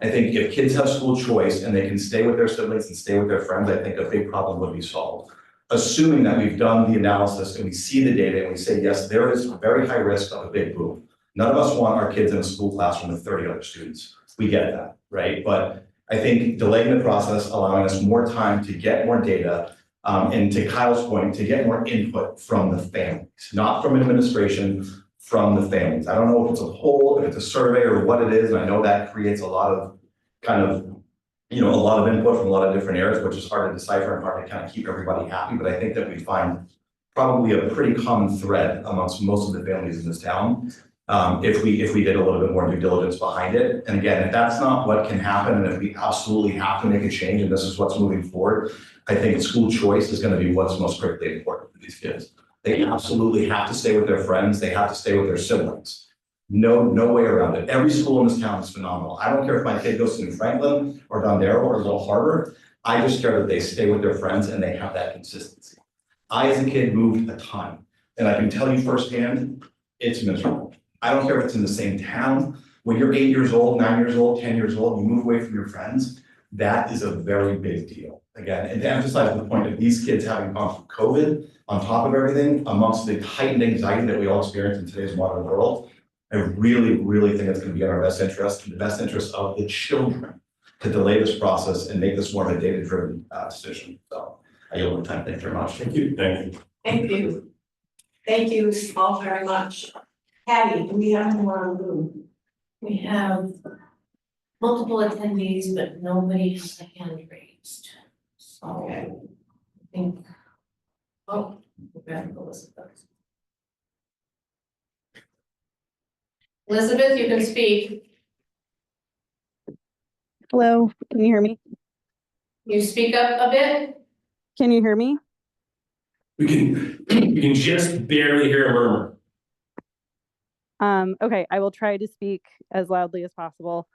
I think if kids have school choice and they can stay with their siblings and stay with their friends, I think a big problem would be solved. Assuming that we've done the analysis and we see the data and we say, yes, there is very high risk of a big boom. None of us want our kids in a school classroom with thirty other students. We get that, right? But I think delaying the process, allowing us more time to get more data, um, and to Kyle's point, to get more input from the families, not from administration, from the families. I don't know if it's a poll, if it's a survey or what it is, and I know that creates a lot of kind of, you know, a lot of input from a lot of different areas, which is hard to decipher and hard to kind of keep everybody happy, but I think that we find probably a pretty common thread amongst most of the families in this town. Um, if we, if we did a little bit more due diligence behind it. And again, if that's not what can happen, and if we absolutely have to make a change, and this is what's moving forward, I think school choice is gonna be what's most critically important for these kids. They absolutely have to stay with their friends, they have to stay with their siblings. No, no way around it. Every school in this town is phenomenal. I don't care if my kid goes to New Franklin or Don Darrow or Little Harbor. I just care that they stay with their friends and they have that consistency. I, as a kid, moved a ton, and I can tell you firsthand, it's miserable. I don't care if it's in the same town. When you're eight years old, nine years old, ten years old, you move away from your friends, that is a very big deal. Again, and to emphasize the point of these kids having gone through COVID, on top of everything, amongst the heightened anxiety that we all experience in today's modern world, I really, really think it's gonna be in our best interest, in the best interest of the children to delay this process and make this more of a data-driven uh decision. So I yield my time. Thank you very much. Thank you. Thank you. Thank you. Thank you all very much. Patty, do we have more room? We have multiple attendees, but nobody has a hand raised. So I Okay, think, oh, we have Elizabeth. Elizabeth, you can speak. Hello, can you hear me? You speak up a bit? Can you hear me? We can, we can just barely hear a murmur. Um, okay, I will try to speak as loudly as possible.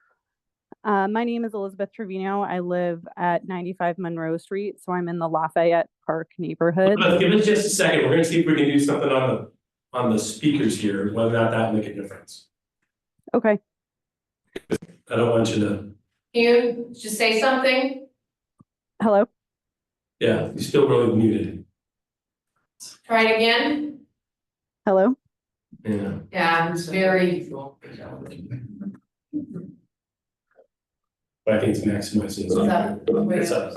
Uh, my name is Elizabeth Trevino. I live at 95 Monroe Street, so I'm in the Lafayette Park neighborhood. But give us just a second. We're gonna see if we can do something on the, on the speakers here, whether or not that make a difference. Okay, I don't want you to, Can you just say something? hello? yeah, you're still really muted. Try it again? Hello? Yeah. Yeah, it's very, But I think it's maximizing. It's up. It's up.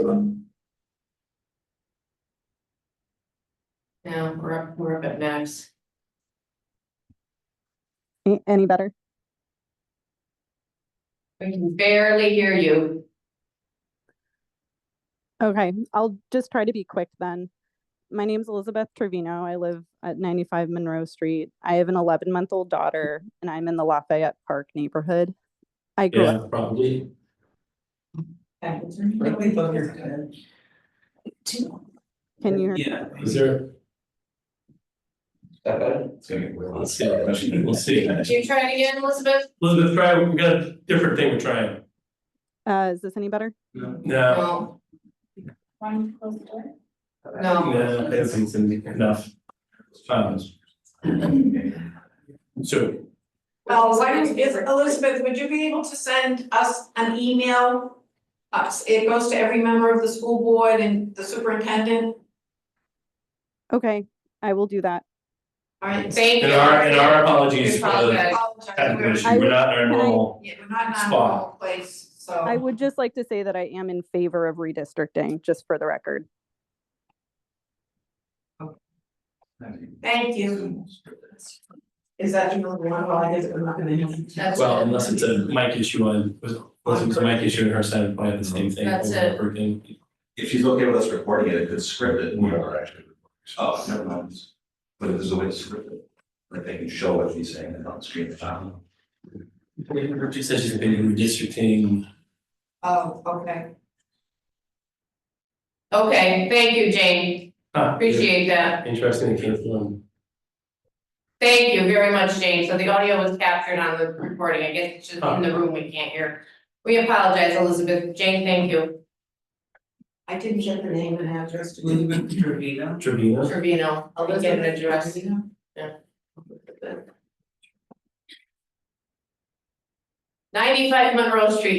yeah, we're up, we're up at max. A- Any better? We can barely hear you. Okay, I'll just try to be quick then. My name's Elizabeth Trevino. I live at 95 Monroe Street. I have an 11 month old daughter, and I'm in the Lafayette Park neighborhood. I grew up. Yeah, probably. Nobody but your head. Can you hear? Yeah. Is there, It's gonna get weird. let's see, we'll see. Can you try it again, Elizabeth? Elizabeth, try, we got a different thing we're trying. Uh, is this any better? No, No, One close door. no. no, that's enough. Um, So, Well, Oh, why don't, is Elizabeth, would you be able to send us an email? Us, it goes to every member of the school board and the superintendent, Okay, I will do that. all right? Thank you. and our, and our apologies We for the apologize. technical Apologize. issue, we're not in our Can I- normal. Yeah, we're not in a Spot. normal place, so. I would just like to say that I am in favor of redistricting, just for the record. Thank you. Is that you number one? Well, I guess I'm not gonna. That's Well, it. unless it's a mic issue on, was, was it a mic issue on her side, probably had the same thing. That's over it. and over again. If she's okay with us recording it, it could script it. We Oh, never mind. But if there's a way to script it, like they can show what she's saying and on screen. Um, She said she's been redistricting, Oh, okay. Okay, thank you, Jane. Huh, Appreciate that. interesting, it came from, Thank you very much, Jane. So the audio was captured on the recording. I guess it's just in the room we can't hear. We apologize, Elizabeth. Jane, thank you. I didn't get the name and address to you. Elizabeth Trevino. Trevino. Trevino, I'll just get an address. Ninety-five Monroe Street,